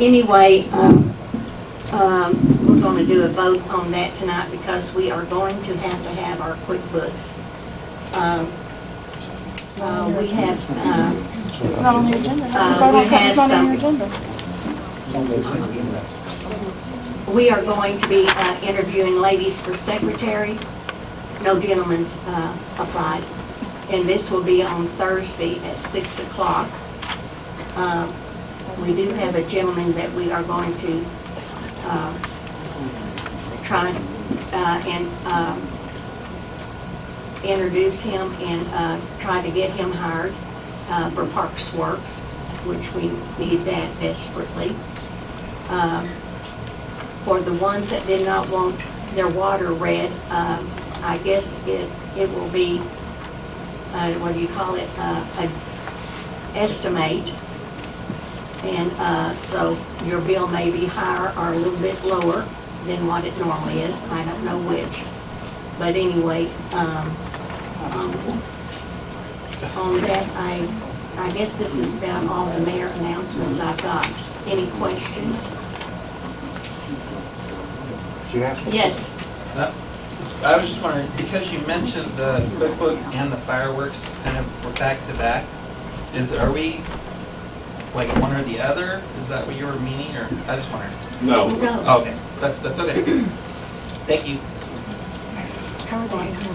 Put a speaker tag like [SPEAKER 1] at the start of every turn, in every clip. [SPEAKER 1] Anyway, um, um, we're gonna do a vote on that tonight because we are going to have to have our QuickBooks. Um, uh, we have, uh,
[SPEAKER 2] It's not on the agenda.
[SPEAKER 1] Uh,
[SPEAKER 2] Vote on
[SPEAKER 1] we
[SPEAKER 2] something
[SPEAKER 1] have
[SPEAKER 2] that's not on
[SPEAKER 1] some-
[SPEAKER 2] your agenda.
[SPEAKER 1] We are going to be uh, interviewing ladies for secretary. No gentlemen's uh, applied. And this will be on Thursday at 6 o'clock. Um, We do have a gentleman that we are going to um, try uh, and um, introduce him and uh, try to get him hired uh, for Parks Works, which we need that desperately. Um, for the ones that did not want their water red, um, I guess it, it will be, uh, what do you call it, uh, a estimate. And, uh, so your bill may be higher or a little bit lower than what it normally is, I don't know which. But anyway, um, um, on that, I, I guess this is about all the mayor announcements I've got. Any questions? Yes.
[SPEAKER 3] Uh, I was just wondering, because you mentioned the QuickBooks and the fireworks kind of were back to back, is, are we like one or the other? Is that what you were meaning, or, I just wondered?
[SPEAKER 4] No.
[SPEAKER 1] No.
[SPEAKER 3] Okay, that's, that's okay. Thank you.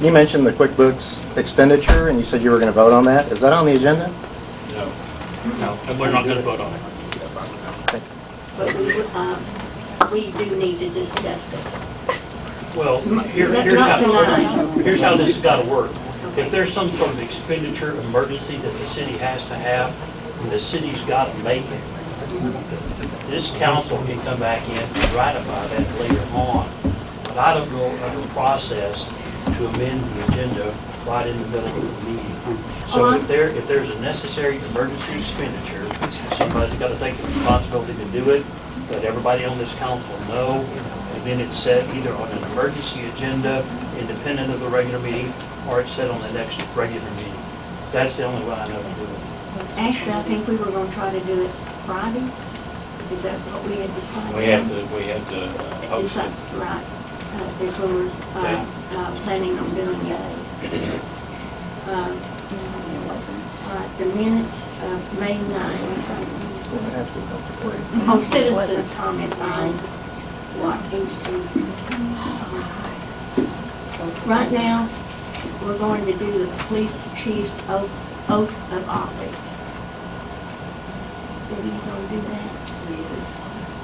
[SPEAKER 5] You mentioned the QuickBooks expenditure, and you said you were going to vote on that. Is that on the agenda?
[SPEAKER 4] No.
[SPEAKER 6] And we're not gonna vote on it.
[SPEAKER 1] But we, um, we do need to discuss it.
[SPEAKER 6] Well, here-
[SPEAKER 1] Not-
[SPEAKER 6] here's
[SPEAKER 1] not
[SPEAKER 6] how,
[SPEAKER 1] tonight.
[SPEAKER 6] here's how this has gotta work.
[SPEAKER 1] Okay.
[SPEAKER 6] If there's some sort of expenditure emergency that the city has to have, and the city's gotta make it, this council can come back in and ratify that later on. But I don't know of a process to amend the agenda right in the middle of the meeting. So if there, if there's a necessary emergency expenditure, somebody's gotta take the responsibility to do it, let everybody on this council know, and then it's set either on an emergency agenda, independent of the regular meeting, or it's set on the next regular meeting. That's the only way I know to do it.
[SPEAKER 1] Actually, I think we were gonna try to do it Friday. Is that what we had decided?
[SPEAKER 4] We have to, we have to uh, post
[SPEAKER 1] Decide-
[SPEAKER 4] it.
[SPEAKER 1] Right. Uh, Is when we're,
[SPEAKER 4] Okay.
[SPEAKER 1] uh, uh, planning on doing it. Um, all right, the minutes of May nine, on citizens' comments on what needs to. Right now, we're going to do the police chief's oath, oath of office. Did he gonna do that?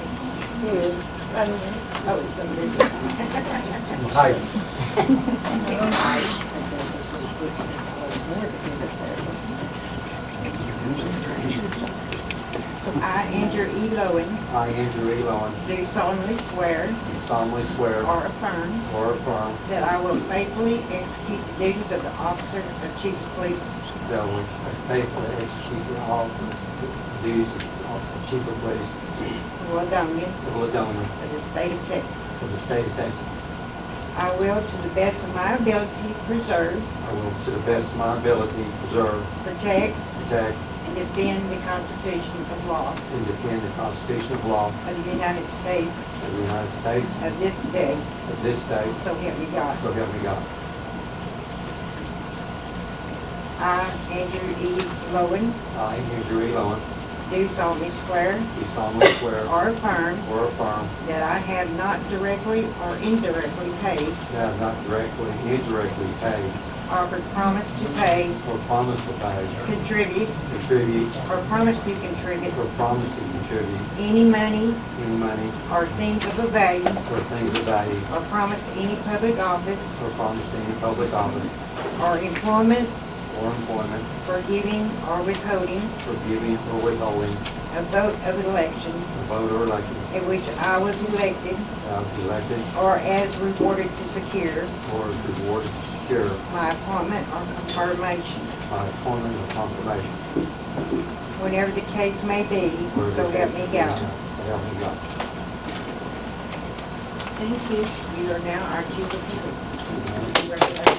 [SPEAKER 7] I, Andrew E. Lowen,
[SPEAKER 8] I, Andrew A. Lowen,
[SPEAKER 7] do solemnly swear
[SPEAKER 8] do solemnly swear
[SPEAKER 7] or affirm
[SPEAKER 8] or affirm
[SPEAKER 7] that I will faithfully execute the duties of the officer of chief of police
[SPEAKER 8] that I will faithfully execute the office, duties of Chief of Police
[SPEAKER 7] of Ladonia
[SPEAKER 8] of Ladonia
[SPEAKER 7] of the state of Texas.
[SPEAKER 8] for the state of Texas.
[SPEAKER 7] I will, to the best of my ability, preserve,
[SPEAKER 8] I will, to the best of my ability, preserve,
[SPEAKER 7] protect,
[SPEAKER 8] protect,
[SPEAKER 7] and defend the Constitution of law
[SPEAKER 8] and defend the Constitution of law
[SPEAKER 7] of the United States
[SPEAKER 8] of the United States,
[SPEAKER 7] of this day,
[SPEAKER 8] of this state,
[SPEAKER 7] so help me God.
[SPEAKER 8] so help me God.
[SPEAKER 7] I, Andrew E. Lowen,
[SPEAKER 8] I, Andrew A. Lowen,
[SPEAKER 7] do solemnly swear
[SPEAKER 8] do solemnly swear
[SPEAKER 7] or affirm
[SPEAKER 8] or affirm
[SPEAKER 7] that I have not directly or indirectly paid
[SPEAKER 8] that I have not directly, indirectly paid,
[SPEAKER 7] offered promise to pay,
[SPEAKER 8] or promised to pay,
[SPEAKER 7] contribute,
[SPEAKER 8] contribute,
[SPEAKER 7] or promise to contribute
[SPEAKER 8] or promised to contribute
[SPEAKER 7] any money
[SPEAKER 8] any money
[SPEAKER 7] or things of a value,
[SPEAKER 8] or things of value
[SPEAKER 7] or promise to any public office
[SPEAKER 8] or promised in any public office
[SPEAKER 7] or employment
[SPEAKER 8] or employment
[SPEAKER 7] for giving or withholding
[SPEAKER 8] for giving or withholding
[SPEAKER 7] a vote of election
[SPEAKER 8] a vote or election
[SPEAKER 7] in which I was elected
[SPEAKER 8] that I was elected
[SPEAKER 7] or as rewarded to secure
[SPEAKER 8] or rewarded to secure
[SPEAKER 7] my appointment or confirmation,
[SPEAKER 8] by appointment or confirmation.
[SPEAKER 7] whenever the case may be,
[SPEAKER 8] wherever
[SPEAKER 7] so
[SPEAKER 8] the
[SPEAKER 7] help me
[SPEAKER 8] case may be.
[SPEAKER 7] God.
[SPEAKER 8] So help me God.
[SPEAKER 1] Thank you.
[SPEAKER 7] You are now our chief of police. Congratulations.